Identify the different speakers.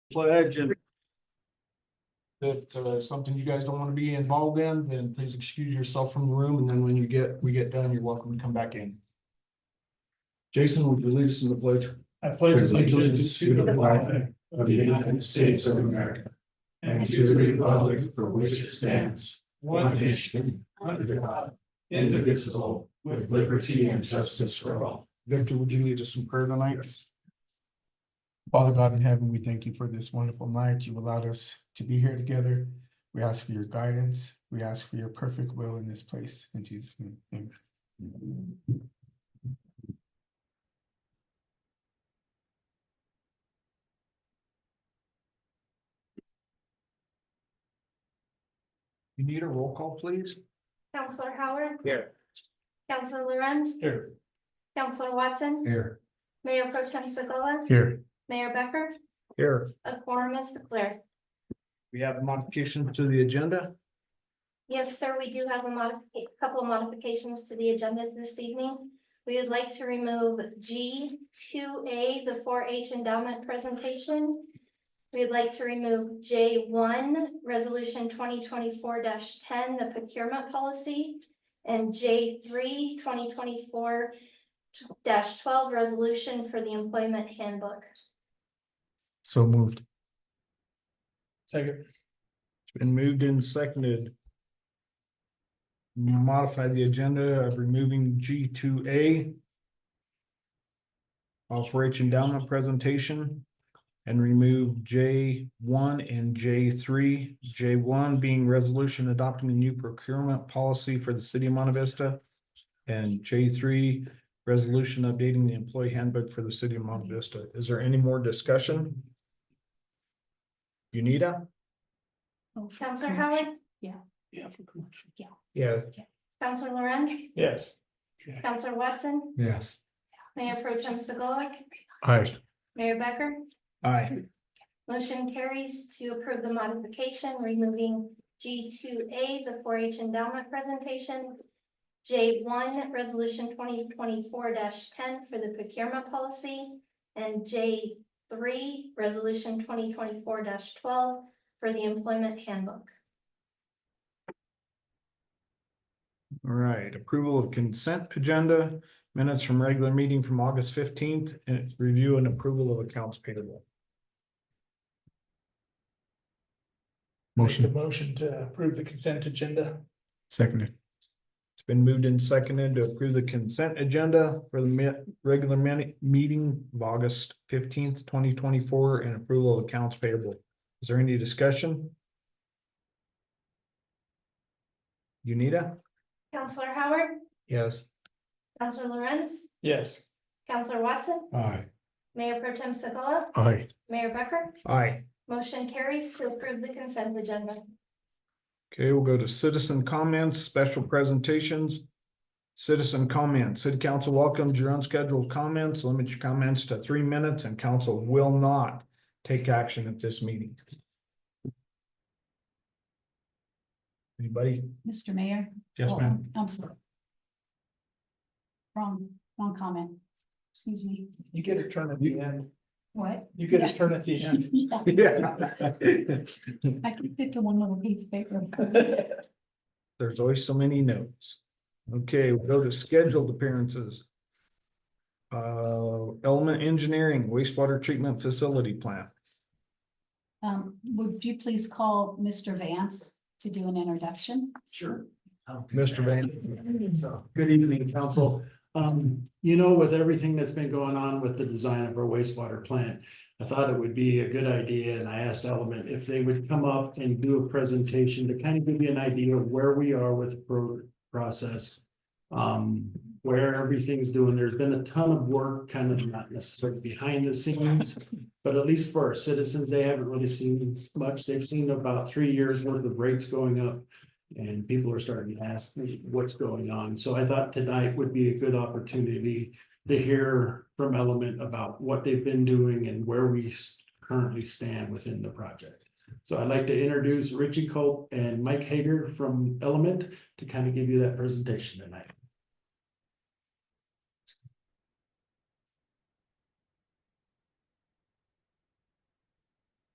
Speaker 1: pledge and
Speaker 2: that uh, something you guys don't want to be involved in, then please excuse yourself from the room, and then when you get, we get done, you're welcome to come back in. Jason, would you lead us in the pledge?
Speaker 3: I pledge allegiance to the flag of the United States of America and to the republic for which it stands, one nation, under God, indivisible, with liberty and justice for all.
Speaker 2: Victor, would you lead us in prayer tonight? Father God in heaven, we thank you for this wonderful night. You've allowed us to be here together. We ask for your guidance. We ask for your perfect will in this place. In Jesus' name, amen.
Speaker 1: you need a roll call, please?
Speaker 4: Counselor Howard,
Speaker 1: Here.
Speaker 4: Counselor Lorenz,
Speaker 2: Here.
Speaker 4: Counselor Watson,
Speaker 2: Here.
Speaker 4: Mayor Pro Tem Segala,
Speaker 2: Here.
Speaker 4: Mayor Becker,
Speaker 1: Here.
Speaker 4: a quorum is declared.
Speaker 1: We have modifications to the agenda.
Speaker 4: Yes, sir, we do have a modifi- couple modifications to the agenda this evening. We would like to remove G two A, the four H endowment presentation. We would like to remove J one, resolution twenty twenty-four ten, the procurement policy. And J 3 2024 twelve, resolution for the employment handbook.
Speaker 2: So moved.
Speaker 1: Second. Been moved and seconded. Modify the agenda of removing G two A. Also H endowment presentation and remove J one and J three. J one being resolution adopting a new procurement policy for the city of Monte Vista. And J three, resolution updating the employee handbook for the city of Monte Vista. Is there any more discussion? Unita?
Speaker 5: Oh, for
Speaker 4: Counselor
Speaker 5: commercial.
Speaker 4: Howard,
Speaker 3: Yeah, for commercial.
Speaker 5: Yeah,
Speaker 1: Yeah,
Speaker 4: Counselor Lorenz,
Speaker 3: Yes.
Speaker 4: Counselor Watson,
Speaker 2: Yes.
Speaker 4: Mayor Pro Tem Segala,
Speaker 2: Aye.
Speaker 4: Mayor Becker.
Speaker 1: Aye.
Speaker 4: Motion carries to approve the modification, removing G two A, the four H endowment presentation. J one, resolution twenty twenty-four ten for the procurement policy. And J three, resolution twenty twenty-four twelve for the employment handbook.
Speaker 1: All right, approval of consent agenda, minutes from regular meeting from August fifteenth, and review and approval of accounts payable.
Speaker 3: Motion. motion to approve the consent agenda.
Speaker 2: Seconded.
Speaker 1: It's been moved and seconded to approve the consent agenda for the mi- regular mini- meeting of August fifteenth, twenty twenty-four, and approval of accounts payable. Is there any discussion? Unita?
Speaker 4: Counselor Howard,
Speaker 1: Yes.
Speaker 4: Counselor Lorenz,
Speaker 3: Yes.
Speaker 4: Counselor Watson,
Speaker 2: Aye.
Speaker 4: Mayor Pro Tem Segala,
Speaker 2: Aye.
Speaker 4: Mayor Becker.
Speaker 1: Aye.
Speaker 4: Motion carries to approve the consent agenda.
Speaker 1: Okay, we'll go to citizen comments, special presentations. Citizen comments, city council welcomes your unscheduled comments, limit your comments to three minutes and council will not take action at this meeting. Anybody?
Speaker 5: Mr. Mayor.
Speaker 1: Yes,
Speaker 5: Oh,
Speaker 1: ma'am.
Speaker 5: I'm sorry. Wrong, wrong comment. Excuse me.
Speaker 3: You get a turn at the end.
Speaker 5: What?
Speaker 3: You get a turn at the end.
Speaker 5: Yeah,
Speaker 1: Yeah.
Speaker 5: I can fit to one little piece of paper.
Speaker 1: There's always so many notes. Okay, we'll go to scheduled appearances. Uh, element engineering wastewater treatment facility plant.
Speaker 5: Um, would you please call Mr. Vance to do an introduction?
Speaker 3: Sure.
Speaker 1: Mr. Van.
Speaker 3: So, good evening, council. Um, you know, with everything that's been going on with the design of our wastewater plant, I thought it would be a good idea, and I asked Element if they would come up and do a presentation to kind of give you an idea of where we are with the pro- process. Um, where everything's doing. There's been a ton of work, kind of not necessarily behind the scenes. But at least for our citizens, they haven't really seen much. They've seen about three years worth of rates going up. And people are starting to ask what's going on. So I thought tonight would be a good opportunity to hear from Element about what they've been doing and where we currently stand within the project. So I'd like to introduce Richie Culp and Mike Hager from Element to kind of give you that presentation tonight.